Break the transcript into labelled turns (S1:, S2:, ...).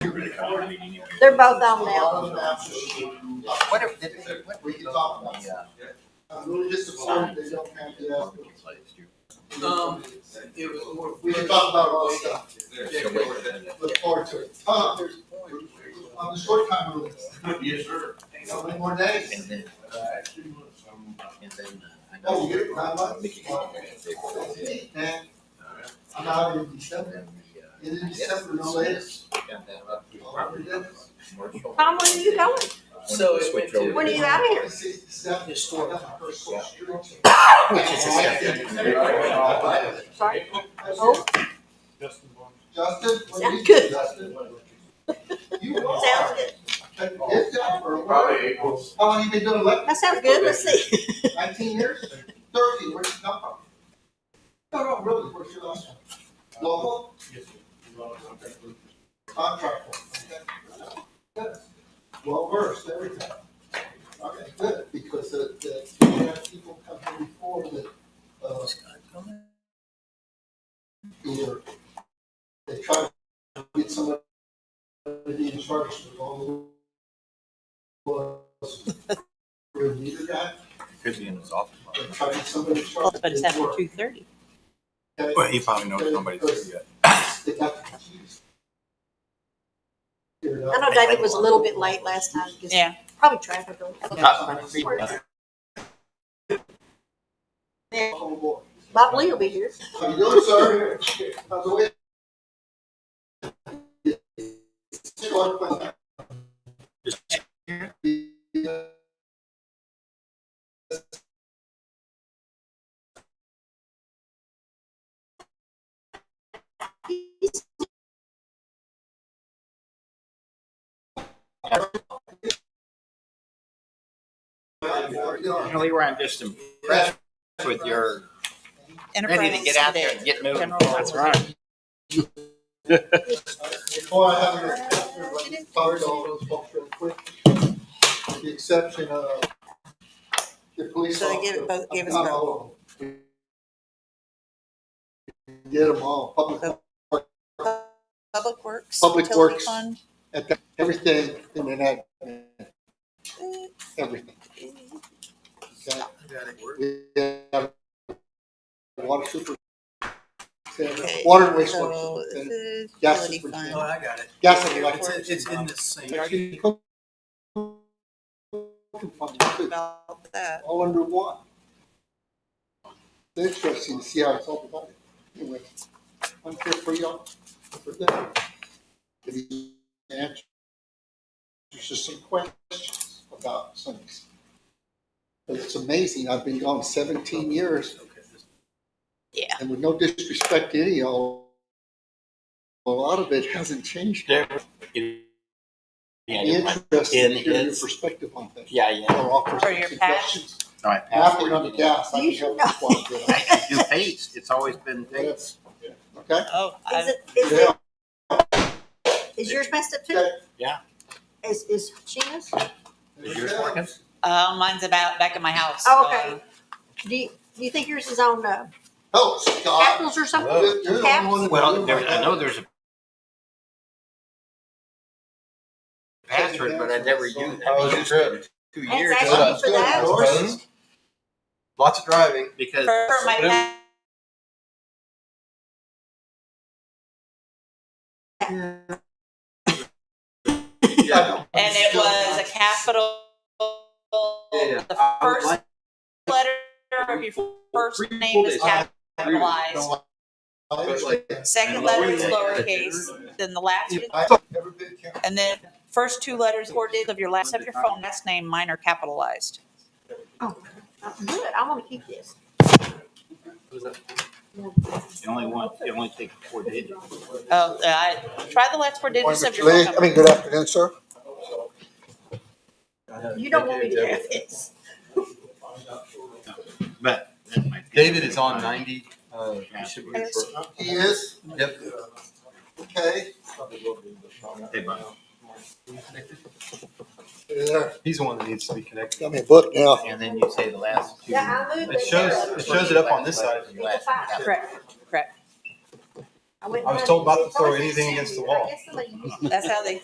S1: They're both on now.
S2: What if, did they- what-
S3: We can talk about it.
S2: Yeah.
S3: I'm really disappointed they don't have the, uh,
S4: Um, it was more.
S3: we can talk about all this stuff. Look forward to it. Uh,
S4: There's a point where-
S3: on the short time rule,
S5: Yes, sir.
S3: so many more days.
S2: And then,
S5: All
S2: and then. uh, I know-
S3: Oh, you get it, nine
S2: Mickey-
S3: months? And
S2: Uh,
S3: I'm out in December, in December, no later.
S1: Tom, when are you going?
S4: So it went to-
S1: When are you out of here?
S3: Historic.
S4: Historic.
S1: Sorry. Oh,
S3: Justin, what do you
S1: Sounds
S3: do,
S1: good.
S3: Justin? You
S1: Sounds
S3: are.
S1: good.
S3: Good job for a while.
S5: Probably April.
S3: How long you been doing electric?
S1: That sounds good. Let's see.
S3: Nineteen years? Thirty, where'd you come from? No, no, really, where's your last one? Local? Contractor. okay. Good. Well versed, everything. Okay, good, because uh, the, we have people coming before that, uh, either they try to get somebody to be in charge of all the laws. Review the guy,
S2: Could be in his office.
S3: they try to get somebody to charge.
S6: But it's
S3: They
S6: after
S3: work.
S6: two thirty.
S3: Okay?
S7: Well, he probably knows nobody's there yet.
S3: They got confused. Figured
S1: I
S3: out.
S1: know David was a little bit late last time. just
S6: Yeah.
S1: Probably traffic.
S3: Oh, boy.
S1: Bob Lee will be here.
S3: How you doing, sir? How's the weather? Just one question.
S5: You know, we were just impressed with your ready to get out there and get moving.
S6: That's right.
S3: Before I have your, everybody's covered all those folks real quick. With the exception of the police
S6: So
S3: officer.
S6: they give it both- give us
S3: Not all of them. Get them all, public,
S6: Public Works.
S3: Public
S6: Utility
S3: Works.
S6: Fund.
S3: at the- everything in the net, everything. Okay? We have Water super.
S6: Okay,
S3: Water and
S6: So,
S3: wastewater.
S6: this
S3: superintendent,
S6: is
S3: Yes,
S6: utility
S3: it's-
S6: fund.
S4: Oh, I got it.
S3: Gas and electric.
S4: It's, it's in the same.
S6: About that.
S3: all under one. It's interesting to see how it's all divided. Anyway, I'm here for y'all, for them. If you answer, there's just some questions about some. But it's amazing, I've been gone seventeen years.
S6: Yeah.
S3: And with no disrespect to any of y'all, a lot of it hasn't changed. Interesting to hear your
S5: it's-
S3: perspective on things.
S5: Yeah, yeah.
S3: Or offer
S6: For your
S3: some
S6: patch?
S3: suggestions.
S5: All right.
S3: After on the gas, I
S1: You
S3: can
S1: should
S3: help you walk it.
S5: Do Tate's. It's always been Tate's.
S3: Okay?
S6: Oh,
S1: Is
S6: I,
S1: it, is
S3: Yeah.
S1: it, is yours messed up too?
S3: Okay.
S5: Yeah.
S1: Is, is Sheena's?
S5: Is yours working?
S6: uh, mine's about back in my house.
S1: Oh, okay.
S6: Uh,
S1: Do you, do you think yours is on, uh,
S3: Oh, Scott.
S1: capitals or something?
S3: You're- you're the only one that-
S5: Well, there, I know there's a password, but I never used it.
S8: Oh,
S3: How was
S5: your trip? Two years.
S1: Thanks, Ashley. for that.
S3: Yours?
S5: Lots of driving.
S6: For
S5: Because
S6: for my pa-
S3: Yeah.
S6: and it was a capital. The first letter of your first name is capitalized. Second letter is lowercase, then the last,
S3: I thought everybody counted.
S6: and then first two letters or digits of your last, of your phone, last name, mine are capitalized.
S1: Uh, Good, I wanna keep this.
S5: the only one, it only takes four digits.
S6: Oh, I, try the last four digits of your phone
S3: I
S6: number.
S3: mean, good afternoon, sir.
S1: You don't want me to have this.
S5: But. that's my-
S8: David is on ninety, uh, he should be
S6: Yes.
S8: for-
S3: He is,
S8: yep.
S3: okay.
S5: Hey, bud.
S8: He's the one that needs to be connected.
S3: Got me a book now.
S5: And then you say the last two.
S1: Yeah, I moved
S8: It
S1: it
S8: shows,
S1: there.
S8: it shows it up on this side.
S1: It's a five.
S6: Correct, correct.
S1: I went
S8: I was
S1: running.
S8: told not to
S1: It's always
S8: throw anything
S1: been
S8: against the
S1: sandy.
S8: wall.
S1: I guess somebody used it.
S6: That's how they